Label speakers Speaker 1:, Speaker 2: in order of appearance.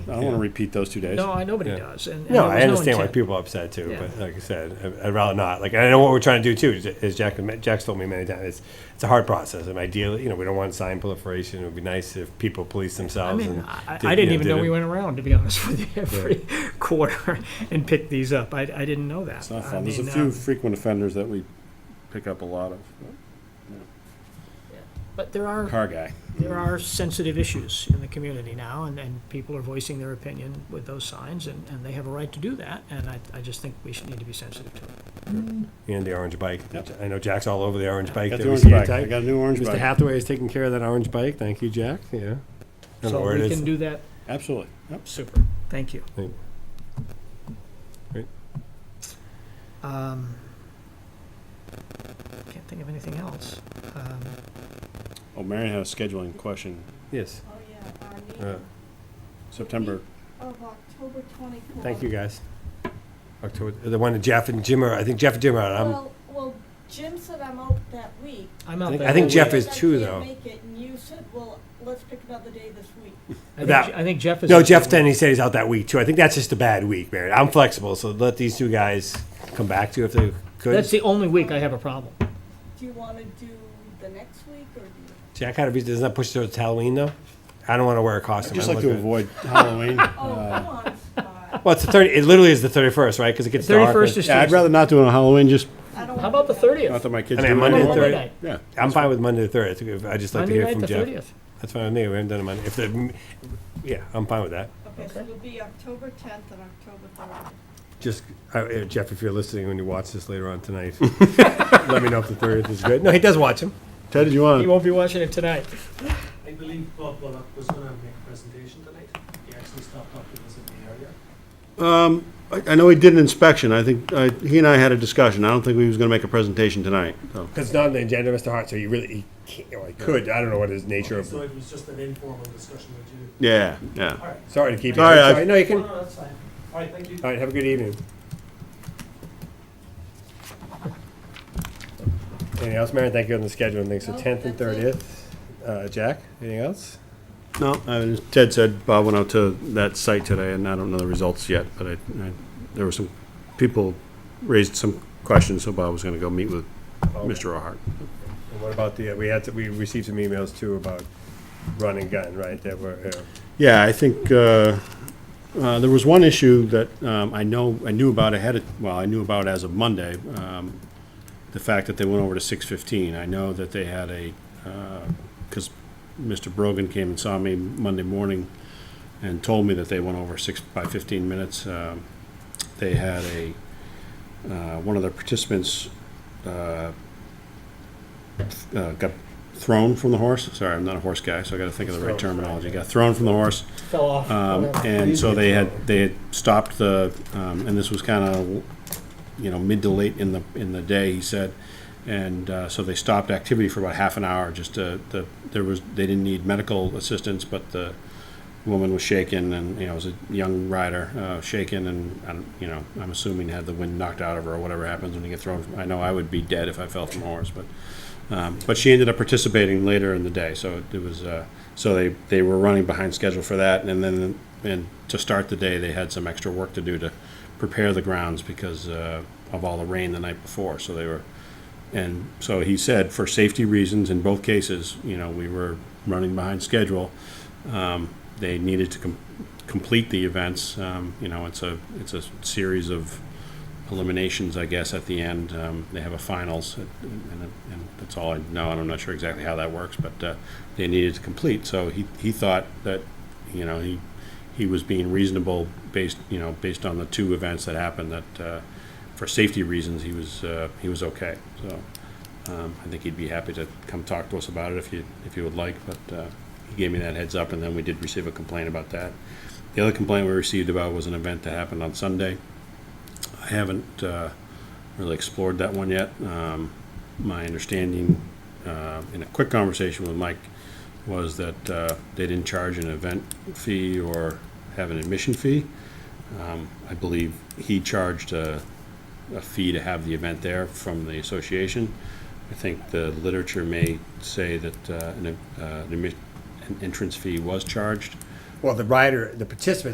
Speaker 1: I don't want to repeat those two days.
Speaker 2: No, I, nobody
Speaker 3: Yeah.
Speaker 2: does. And, and
Speaker 3: No,
Speaker 2: there
Speaker 3: I
Speaker 2: was
Speaker 3: understand why
Speaker 2: intent.
Speaker 3: people are upset too,
Speaker 2: Yeah.
Speaker 3: but like I said, I- I'd rather not. Like, and I know what we're trying to do too, is- is Jack, Jack's told me many times, it's, it's a hard process. And ideally, you know, we don't want sign proliferation. It would be nice if people police
Speaker 2: I
Speaker 3: themselves.
Speaker 2: mean,
Speaker 3: and
Speaker 2: I,
Speaker 3: did-
Speaker 2: I
Speaker 3: you
Speaker 2: didn't even
Speaker 3: did
Speaker 2: know
Speaker 3: it.
Speaker 2: we went around, to be honest with you, every quarter and picked these up. I, I didn't know that.
Speaker 1: It's not
Speaker 2: I
Speaker 1: fun. There's a
Speaker 2: mean,
Speaker 1: few
Speaker 2: um,
Speaker 1: frequent offenders that we pick up a lot of.
Speaker 2: But there are
Speaker 1: Car guy.
Speaker 2: there are sensitive issues in the community now, and, and people are voicing their opinion with those signs, and, and they have a right to do that, and I, I just think we should need to be sensitive to it.
Speaker 3: And the orange bike.
Speaker 1: Yep.
Speaker 3: I know Jack's all over the orange bike.
Speaker 1: Got
Speaker 3: that
Speaker 1: the
Speaker 3: we
Speaker 1: orange
Speaker 3: see
Speaker 1: bike.
Speaker 3: today.
Speaker 1: I got a new orange
Speaker 3: Mr.
Speaker 1: bike.
Speaker 3: Hathaway is taking care of that orange bike. Thank you, Jack. Yeah. I don't know
Speaker 2: So
Speaker 3: where it
Speaker 2: we
Speaker 3: is.
Speaker 2: can do that,
Speaker 1: Absolutely. Yep.
Speaker 2: super, thank you.
Speaker 3: Thank- Great.
Speaker 2: Um, Can't think of anything else. Um,
Speaker 1: Oh, Marion had a scheduling question.
Speaker 3: Yes.
Speaker 4: Oh, yeah, our
Speaker 3: Uh,
Speaker 4: meeting
Speaker 1: September.
Speaker 4: of October twenty-fourth.
Speaker 3: Thank you, guys. October, the one that Jeff and Jim are, I think Jeff and Jim are, I'm,
Speaker 4: Well, well, Jim said I'm out that week.
Speaker 2: I'm out
Speaker 3: think-
Speaker 2: that
Speaker 3: I think
Speaker 2: whole
Speaker 3: Jeff
Speaker 2: week.
Speaker 3: is too, though.
Speaker 4: I can't make it, and you said, well, let's pick another day this week.
Speaker 2: I think
Speaker 3: that-
Speaker 2: Je- I think Jeff is.
Speaker 3: no,
Speaker 2: out that
Speaker 3: Jeff
Speaker 2: week.
Speaker 3: then, he said he's out that week too. I think that's just a bad week, Mary. I'm flexible, so let these two guys come back to you if they
Speaker 2: That's
Speaker 3: could.
Speaker 2: the only week I have a problem.
Speaker 4: Do you wanna do the next week, or do you?
Speaker 3: Jack, how do we, doesn't that push towards Halloween though? I don't want to wear a costume.
Speaker 1: Just
Speaker 3: I'm
Speaker 1: like to
Speaker 3: looking-
Speaker 1: avoid Halloween.
Speaker 4: Oh,
Speaker 2: Uh,
Speaker 4: come on, Scott.
Speaker 3: Well, it's the thirty, it literally is the thirty-first, right? Because it gets dark.
Speaker 2: Thirty-first is
Speaker 1: Yeah, I'd
Speaker 2: Tuesday.
Speaker 1: rather not do it on Halloween, just
Speaker 4: I don't
Speaker 2: How
Speaker 4: wanna
Speaker 2: about the
Speaker 4: go.
Speaker 1: not
Speaker 2: thirtieth?
Speaker 1: that my kids do
Speaker 3: I mean,
Speaker 1: it.
Speaker 3: Monday,
Speaker 2: Monday
Speaker 3: thirty-
Speaker 2: night.
Speaker 1: Yeah.
Speaker 3: I'm fine with Monday the third. I think- I'd just like to
Speaker 2: Monday
Speaker 3: hear
Speaker 2: night,
Speaker 3: from
Speaker 2: the
Speaker 3: Jeff.
Speaker 2: thirtieth.
Speaker 3: That's fine with me. We haven't done it Monday. If the, yeah, I'm fine with that.
Speaker 4: Okay, so it'll be October tenth and October thirtieth.
Speaker 3: Just, uh, uh, Jeff, if you're listening when you watch this later on tonight, let me know if the thirtieth is good. No, he does watch him.
Speaker 1: Ted, did you
Speaker 2: You
Speaker 1: want
Speaker 2: won't be watching it tonight.
Speaker 5: I believe Bob Bullock was going to make a presentation tonight. He actually stopped up to visit the area.
Speaker 1: to? I know he did an inspection. I think, I- he and I had a discussion. I don't think he was going to make a presentation tonight, so.
Speaker 3: Because it's not on the agenda, Mr. Hart, so he really, he can't, or he could, I don't know what his nature of,
Speaker 5: So it was just an informal discussion with you.
Speaker 1: Yeah, yeah.
Speaker 5: All right.
Speaker 3: sorry to keep you.
Speaker 1: Sorry, I-
Speaker 3: No, you can,
Speaker 5: No,
Speaker 3: all
Speaker 5: no, that's fine. All right, thank you.
Speaker 3: right, have a good evening. Anything else, Mary? Thank you on the schedule and things. So
Speaker 4: No,
Speaker 3: tenth and
Speaker 4: that's it.
Speaker 3: thirtieth. Uh, Jack, anything else?
Speaker 1: No, I- Ted said Bob went out to that site today, and I don't know the results yet, but I, I- there were some, people raised some questions, so Bob was going to go meet with Mr. O'Hart.
Speaker 3: And what about the, uh, we had, to- we received some emails too about run and gun, right? That were, uh,
Speaker 1: Yeah, I think uh, uh, there was one issue that um, I know, I knew about ahead of, well, I knew about as of Monday, um, the fact that they went over to 6:15. I know that they had a, because Mr. Brogan came and saw me Monday morning and told me that they went over six, by 15 minutes. Um, They had a, uh, one of their participants uh, uh, got thrown from the horse. Sorry, I'm not a horse guy, so I got to think of the right
Speaker 3: Thrown.
Speaker 1: terminology. Got thrown from the horse.
Speaker 2: Fell off.
Speaker 1: Um,
Speaker 2: whatever.
Speaker 1: and so they had, they had stopped the, um, and this was kind of, you know, mid to late in the, in the day, he said. And, uh, so they stopped activity for about half an hour, just to, the, there was, they didn't need medical assistance, but the woman was shaken and, you know, was a young rider, uh, shaken and, I don't- you know, I'm assuming had the wind knocked out of her or whatever happens when you get thrown. from- I know I would be dead if I fell from a horse, but, um, but she ended up participating later in the day, so it was, uh, so they, they were running behind schedule for that, and then, and to start the day, they had some extra work to do to prepare the grounds because, uh, of all the rain the night before, so they were, and so he said, for safety reasons, in both cases, you know, we were running behind schedule. Um, they needed to com- complete the events, um, you know, it's a, it's a series of, eliminations, I guess, at the end. Um, they have a finals, and, and, and that's all I know, and I'm not sure exactly how that works, but uh, they needed to complete. So he, he thought that, you know, he he was being reasonable based, you know, based on the two events that happened. That uh, for safety reasons, he was uh, he was okay. So um, I think he'd be happy to come talk to us about it if you if you would like. But uh, he gave me that heads up, and then we did receive a complaint about that. The other complaint we received about was an event that happened on Sunday. I haven't uh, really explored that one yet. Um, My understanding, uh, in a quick conversation with Mike, was that uh, they didn't charge an event fee or have an admission fee. Um, I believe he charged a, a fee to have the event there from the association. I think the literature may say that uh, an, uh, an admi- an entrance fee was charged.
Speaker 3: well, the rider, the participant